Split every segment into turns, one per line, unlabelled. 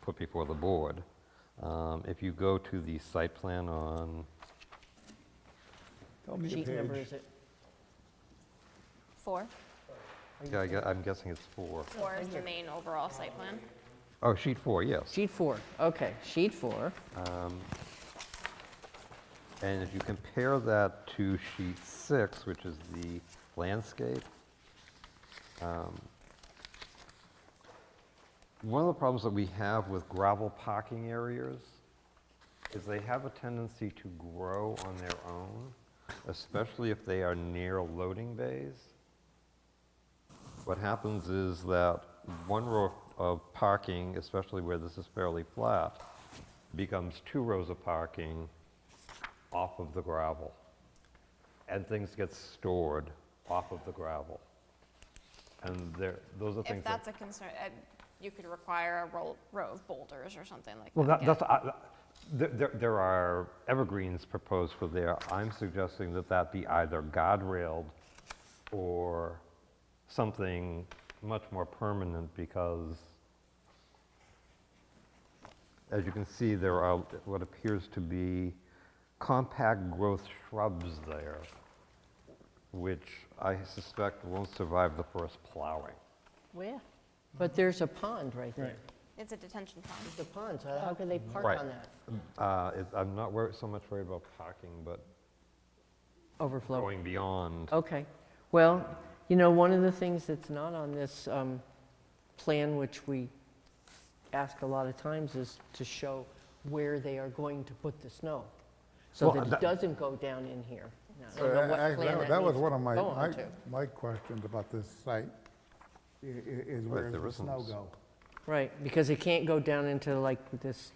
put before the board. Um, If you go to the site plan on,
Tell me the
Sheet number
page.
is it?
Four?
Are you-
yeah, I gue- I'm guessing it's four.
Four is the main overall site plan.
Oh, sheet four, yes.
Sheet four, okay, sheet four,
And if you compare that to sheet six, which is the landscape, um, one of the problems that we have with gravel parking areas is they have a tendency to grow on their own, especially if they are near loading bays. What happens is that one row of parking, especially where this is fairly flat, becomes two rows of parking off of the gravel. And things get stored off of the gravel. And there, those are
If
things that.
that's a concern, uh, you could require a roll- row of boulders or something like that.
Well, that,
yeah.
that's, I- there, there- there are evergreens proposed for there. I'm suggesting that that be either guardrailed or something much more permanent because, as you can see, there are what appears to be compact growth shrubs there, which I suspect won't survive the first plowing.
where? But there's a pond right there.
Right.
It's a detention pond.
The pond, so how can they park
Right.
on that?
Uh, it- I'm not wor- so much worried about parking, but
Overflow.
going beyond.
Okay, well, you know, one of the things that's not on this um, plan, which we ask a lot of times, is to show where they are going to put the snow, so
Well,
that
that-
it doesn't go down in here. Now, I
So
don't know what
I- I-
plan
that- That was
needs
one of my,
to go on
my-
to.
my questions about this site, i- i- is where
there
the
isn't
snow
s-
go.
Right, because it can't go down into like this,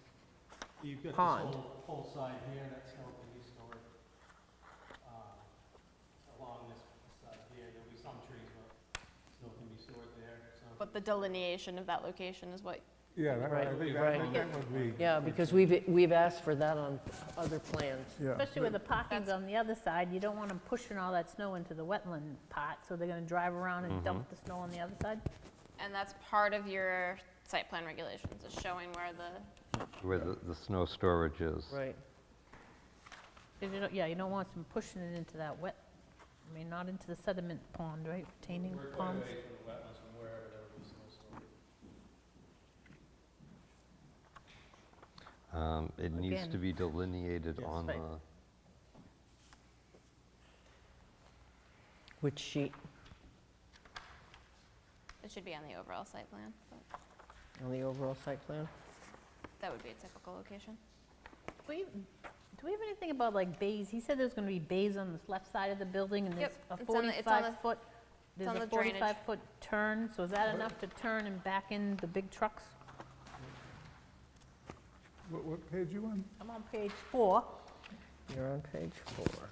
You've got this
Pond.
whole, whole side here, that's going to be stored. um, Along this side here, there'll be some trees, but snow can be stored there, some.
But the delineation of that location is what,
Yeah, that-
Right,
I think
right.
that- I think that would be.
yeah, because we've, we've asked for that on other plans.
Yeah.
Especially with the parking's on the other side, you don't want them pushing all that snow into the wetland part, so they're gonna drive around and dump the snow on the other side.
and that's part of your site plan regulations, is showing where the,
Where the, the snow storage is.
Right,
'Cause you don't- Yeah, you don't want them pushing it into that wet, I mean, not into the sediment pond, right, retaining
We're quite
ponds.
away from the wetlands from wherever there would be snow stored.
Um, It needs to
Again.
be delineated
Yes.
on
Right.
the,
which sheet,
it should be on the overall site plan. but
on the overall site plan?
That would be a typical location.
Do we- do we have anything about like bays? He said there's gonna be bays on this left side of the building, and
Yep,
there's a
it's on the- it's on the-
45-foot, there's
on
a
the drainage.
45-foot turn, so is that enough to turn and back in the big trucks?
What, what page you on?
I'm on page four.
You're on page four.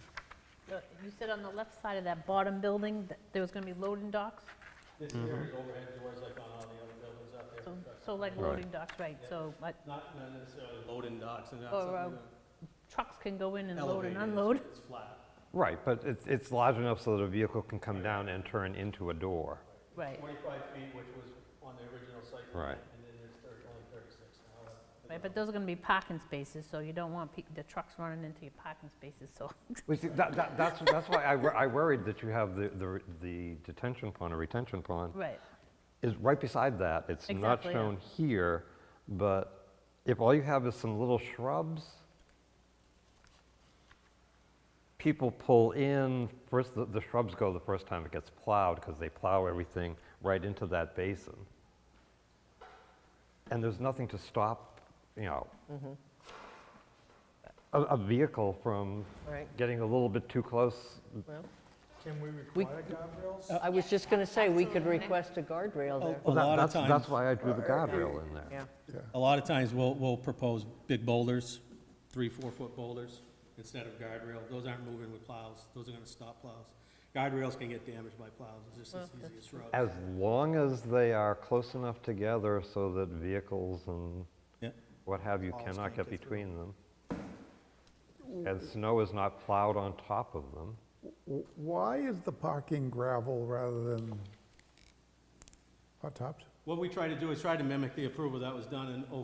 Uh, You said on the left side of that bottom building, that there was gonna be loading docks?
This
Mm-hmm.
here is overhead doors like on all the other buildings out there.
So-
but
So like
Right.
loading docks, right, so like
Not not necessarily loading docks and that's
Or,
something
trucks can go in
that
and load
elevated,
and
it's-
unload.
it's flat.
right, but it's, it's large enough so that a vehicle can come down and turn into a door.
Right,
45 feet, which was on the original site.
Right.
plan, And then there's thirty- only 36 now.
right, but those are gonna be parking spaces, so you don't want peo- the trucks running into your parking spaces, so.
Well, see, that, that, that's, that's why I, wor- I worried that you have the, the, the detention pond or retention pond
Right,
is right beside that. It's not
Exactly, yeah.
shown here, but if all you have is some little shrubs, people pull in, first, the, the shrubs go the first time it gets plowed because they plow everything right into that basin. And there's nothing to stop, you know, a, a vehicle from
Right.
getting a little bit too close.
Well,
Can we
We-
guardrails?
I was just going to say, we could
Absolutely.
request a guardrail there.
A
Well, that-
lot of
that's- That's
times-
why I drew the guardrail in there.
Yeah,
A lot of times, we'll, we'll propose big boulders, three, four-foot boulders, instead of guardrail. Those aren't moving with plows, those are gonna stop plows. Guardrails can get damaged by plows, it's just as easy as
As
shrubs.
long as they are close enough together so that vehicles and
Yeah.
what have you
Cars
cannot get
can't get through.
between them. And snow is not plowed on top of them.
W- Why is the parking gravel rather than hot tops?
What we try to do is try to mimic the approval that was done in oh